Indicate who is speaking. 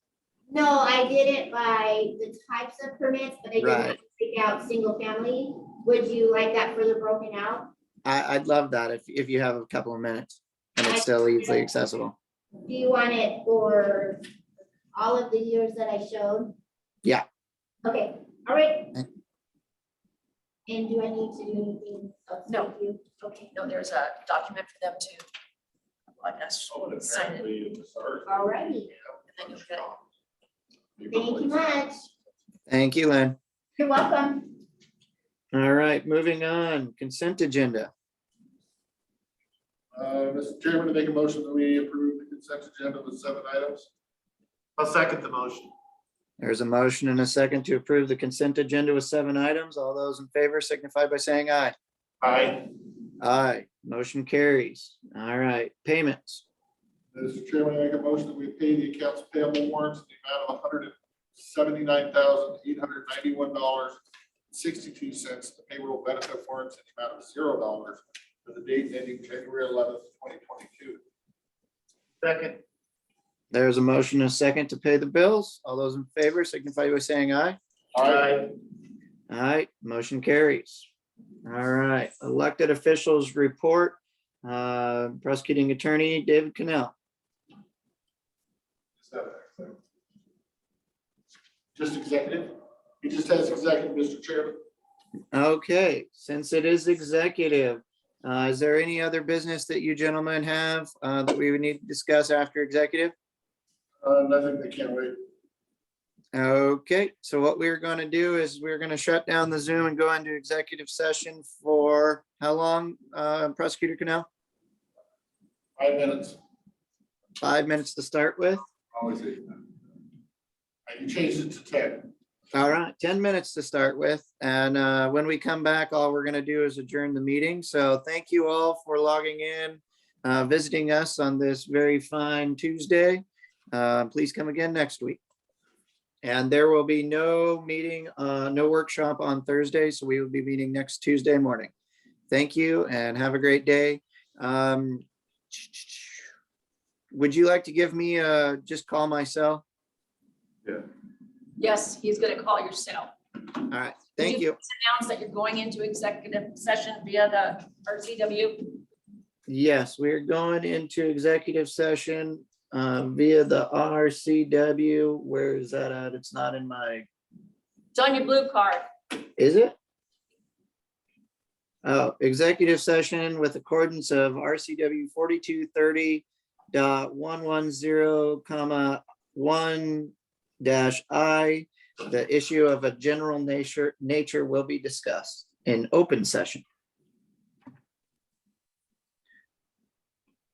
Speaker 1: No, I did it by the types of permits, but I
Speaker 2: Right.
Speaker 1: didn't break out single family. Would you like that further broken out?
Speaker 2: I, I'd love that if, if you have a couple of minutes and
Speaker 1: I-
Speaker 2: it's still easily accessible.
Speaker 1: Do you want it for all of the years that I showed?
Speaker 2: Yeah.
Speaker 1: Okay, all right.
Speaker 2: Okay.
Speaker 1: And do I need to do anything else?
Speaker 3: No.
Speaker 1: with you? Okay,
Speaker 3: No, there's a document for them to, I guess,
Speaker 4: Oh, and
Speaker 3: sign it.
Speaker 4: apparently it was ours.
Speaker 1: all righty.
Speaker 3: And then you'll get it.
Speaker 1: Thank you much.
Speaker 2: Thank you, Lynn.
Speaker 1: You're welcome.
Speaker 2: All right, moving on, consent agenda.
Speaker 4: Uh, Mr. Chairman, to make a motion that we approve the consent agenda with seven items. I'll second the motion.
Speaker 2: There's a motion and a second to approve the consent agenda with seven items. All those in favor signify by saying aye.
Speaker 4: Aye.
Speaker 2: Aye, motion carries. All right, payments.
Speaker 4: Mr. Chairman, I make a motion that we pay the accounts payable warrants in the amount of hundred and seventy-nine thousand, eight hundred ninety-one dollars, sixty-two cents. The payroll benefit warrants in the amount of zero dollars for the date ending January eleventh, twenty twenty-two. Second.
Speaker 2: There's a motion and a second to pay the bills. All those in favor signify by saying aye.
Speaker 4: Aye.
Speaker 2: All right, motion carries. All right, elected officials report. Uh, Prosecuting Attorney David Cannell.
Speaker 4: Just have executive. Just executive? He just has executive, Mr. Chairman.
Speaker 2: Okay, since it is executive, uh, is there any other business that you gentlemen have uh, that we would need to discuss after executive?
Speaker 4: Uh, nothing, they can't wait.
Speaker 2: Okay, so what we're going to do is we're going to shut down the Zoom and go into executive session for how long, uh, Prosecutor Cannell?
Speaker 4: Five minutes,
Speaker 2: Five minutes to start with?
Speaker 4: always eight. Uh, You changed it to ten.
Speaker 2: All right, ten minutes to start with, and uh, when we come back, all we're gonna do is adjourn the meeting. So thank you all for logging in, uh, visiting us on this very fine Tuesday. Uh, Please come again next week. And there will be no meeting, uh, no workshop on Thursday, so we will be meeting next Tuesday morning. Thank you and have a great day. Um, Would you like to give me, uh, just call my cell?
Speaker 3: Yes, he's gonna call your cell.
Speaker 2: All right, thank you.
Speaker 3: Announce that you're going into executive session via the RCW.
Speaker 2: Yes, we're going into executive session uh, via the RCW. Where is that at? It's not in my,
Speaker 3: It's on your blue card.
Speaker 2: is it? Oh, executive session with accordance of RCW 4230.110, comma, one dash I. The issue of a general nature, nature will be discussed in open session.